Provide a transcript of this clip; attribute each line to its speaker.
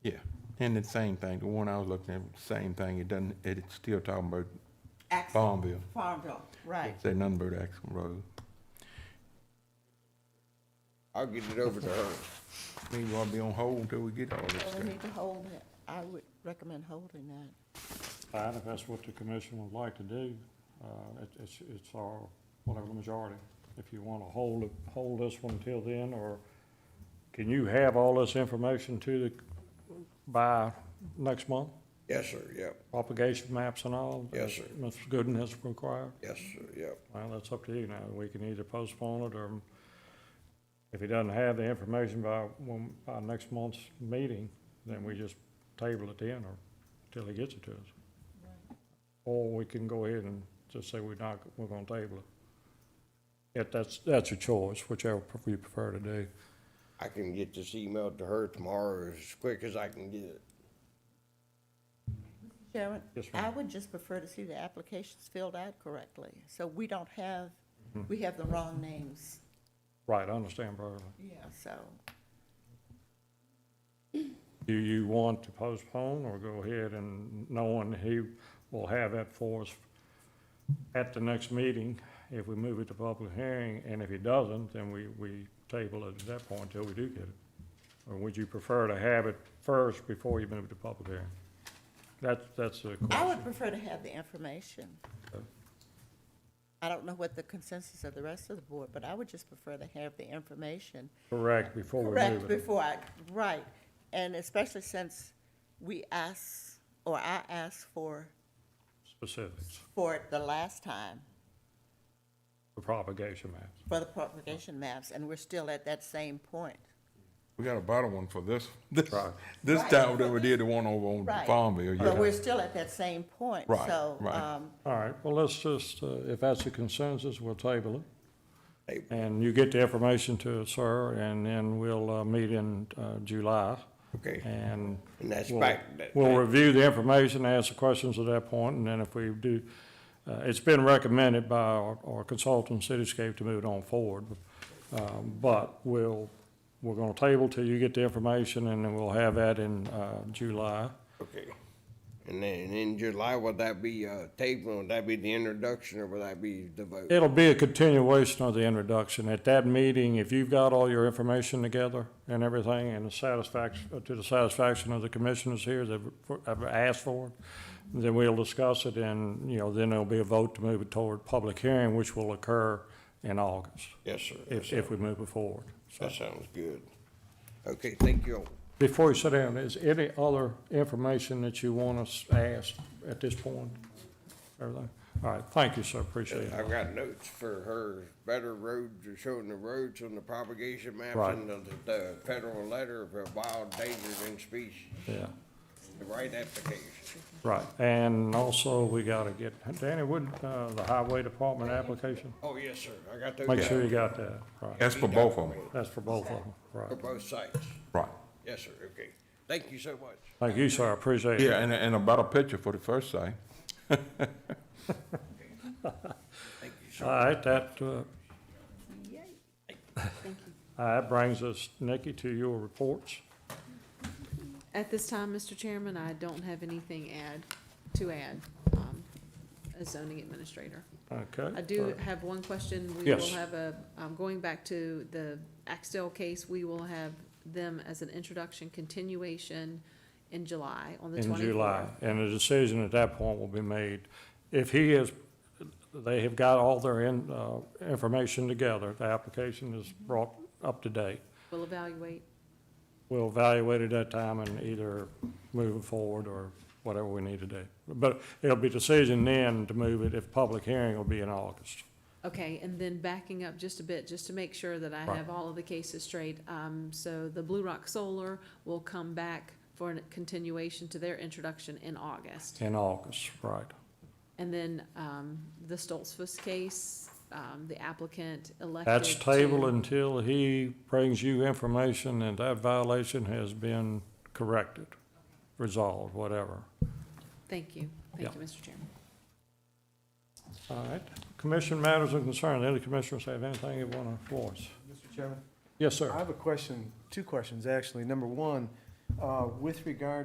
Speaker 1: And the same thing, the one I was looking at, same thing, it doesn't, it- it's still talking about
Speaker 2: Axle,
Speaker 1: Farmville.
Speaker 2: Farmville, right.
Speaker 1: Say nothing about Axel Road.
Speaker 3: I'll get it over to her.
Speaker 1: We gonna be on hold until we get all this
Speaker 2: So we
Speaker 1: stuff.
Speaker 2: need to hold it. I would recommend holding that.
Speaker 4: Fine, if that's what the commission would like to do, uh, it- it's, it's our, whatever the majority. If you want to hold, it- hold this one till then, or can you have all this information to the, by next month?
Speaker 3: Yes, sir, yep,
Speaker 4: Propagation maps and all?
Speaker 3: Yes, sir.
Speaker 4: as Mr. Gooden has required?
Speaker 3: yes, sir, yep.
Speaker 4: Well, that's up to you now. We can either postpone it or if he doesn't have the information by, when- by next month's meeting, then we just table it then or till he gets it to us. Or we can go ahead and just say we're not, we're gonna table it. If that's, that's your choice, whichever you prefer to do.
Speaker 3: I can get this email to her tomorrow as quick as I can get it.
Speaker 2: Sharon,
Speaker 4: Yes, ma'am.
Speaker 2: I would just prefer to see the applications filled out correctly, so we don't have,
Speaker 4: Hmm.
Speaker 2: we have the wrong names.
Speaker 4: Right, I understand, Barbara.
Speaker 2: Yeah. So,
Speaker 4: Do you want to postpone or go ahead and knowing he will have that for us at the next meeting if we move it to public hearing? And if he doesn't, then we, we table it at that point until we do get it. Or would you prefer to have it first before you move it to public hearing? That's, that's the
Speaker 2: I
Speaker 4: question.
Speaker 2: would prefer to have the information. I don't know what the consensus of the rest of the board, but I would just prefer to have the information
Speaker 4: Correct, before we
Speaker 2: Correct,
Speaker 4: move it.
Speaker 2: before I, right, and especially since we asked, or I asked for,
Speaker 4: Specifics
Speaker 2: for it the last time,
Speaker 4: for propagation maps.
Speaker 2: for the propagation maps, and we're still at that same point.
Speaker 1: We got a bottle one for this, this,
Speaker 4: Right.
Speaker 1: this
Speaker 2: Right.
Speaker 1: time that we did the one over on
Speaker 2: Right.
Speaker 1: Farmville,
Speaker 2: But we're
Speaker 1: yeah.
Speaker 2: still at that same point,
Speaker 1: Right,
Speaker 2: so,
Speaker 1: right.
Speaker 2: um,
Speaker 4: All right, well, let's just, uh, if that's the consensus, we'll table it.
Speaker 3: Hey,
Speaker 4: And you get the information to us, sir, and then we'll uh, meet in uh, July.
Speaker 3: Okay,
Speaker 4: And
Speaker 3: and that's
Speaker 4: we'll-
Speaker 3: back, that-
Speaker 4: We'll
Speaker 3: that-
Speaker 4: review the information, ask the questions at that point, and then if we do, uh, it's been recommended by our our consultant, Cityscape, to move it on forward. Um, But we'll, we're going to table till you get the information, and then we'll have that in uh, July.
Speaker 3: okay. And then in July, would that be, uh, taping, would that be the introduction, or would that be the vote?
Speaker 4: It'll be a continuation of the introduction. At that meeting, if you've got all your information together and everything, and the satisfaction, to the satisfaction of the commissioners here that have asked for it, then we'll discuss it, and, you know, then there'll be a vote to move it toward public hearing, which will occur in August,
Speaker 3: Yes, sir, yes,
Speaker 4: if,
Speaker 3: sir.
Speaker 4: if we move it forward.
Speaker 3: That sounds good. Okay, thank you.
Speaker 4: Before you sit down, is any other information that you want us asked at this point? Everything? All right, thank you, sir, appreciate it.
Speaker 3: I've got notes for her, better roads, or showing the roads on the propagation maps
Speaker 4: Right.
Speaker 3: and the, the federal letter of a wild dangerous in species,
Speaker 4: Yeah.
Speaker 3: the right application.
Speaker 4: Right, and also we gotta get, Danny, would, uh, the highway department application,
Speaker 3: Oh, yes, sir, I got those.
Speaker 4: make
Speaker 3: down.
Speaker 4: sure you got that, right,
Speaker 1: That's for both of them,
Speaker 4: that's for both of them,
Speaker 3: For
Speaker 4: right.
Speaker 3: both sites.
Speaker 1: right.
Speaker 3: Yes, sir, okay. Thank you so much.
Speaker 4: Thank you, sir, I appreciate it.
Speaker 1: Yeah, and, and a bottle picture for the first site.
Speaker 3: Thank you, sir.
Speaker 4: All right, that, uh, that brings us, Nikki, to your reports.
Speaker 5: At this time, Mr. Chairman, I don't have anything add, to add, um, as zoning administrator.
Speaker 4: Okay.
Speaker 5: I do have one question. We will
Speaker 4: Yes.
Speaker 5: have a, um, going back to the Axtell case, we will have them as an introduction continuation in July, on the
Speaker 4: In
Speaker 5: twenty-fourth.
Speaker 4: July, and the decision at that point will be made. If he is, they have got all their in, uh, information together, the application is brought up to date.
Speaker 5: We'll evaluate.
Speaker 4: we'll evaluate it at that time and either move it forward or whatever we need to do. But it'll be decision then to move it, if public hearing will be in August.
Speaker 5: Okay, and then backing up just a bit, just to make sure that I
Speaker 4: Right.
Speaker 5: have all of the cases straight. Um, so the Blue Rock Solar will come back for a continuation to their introduction in August.
Speaker 4: In August, right.
Speaker 5: And then, um, the Stolzfus case, um, the applicant elected
Speaker 4: That's tabled
Speaker 5: to-
Speaker 4: until he brings you information and that violation has been corrected, resolved, whatever.
Speaker 5: Thank you, thank
Speaker 4: Yeah.
Speaker 5: you, Mr. Chairman.
Speaker 4: All right. Commission matters of concern. Any commissioners have anything they want to voice?
Speaker 6: Mr. Chairman,
Speaker 4: Yes, sir.
Speaker 6: I have a question, two questions, actually. Number one, uh, with regard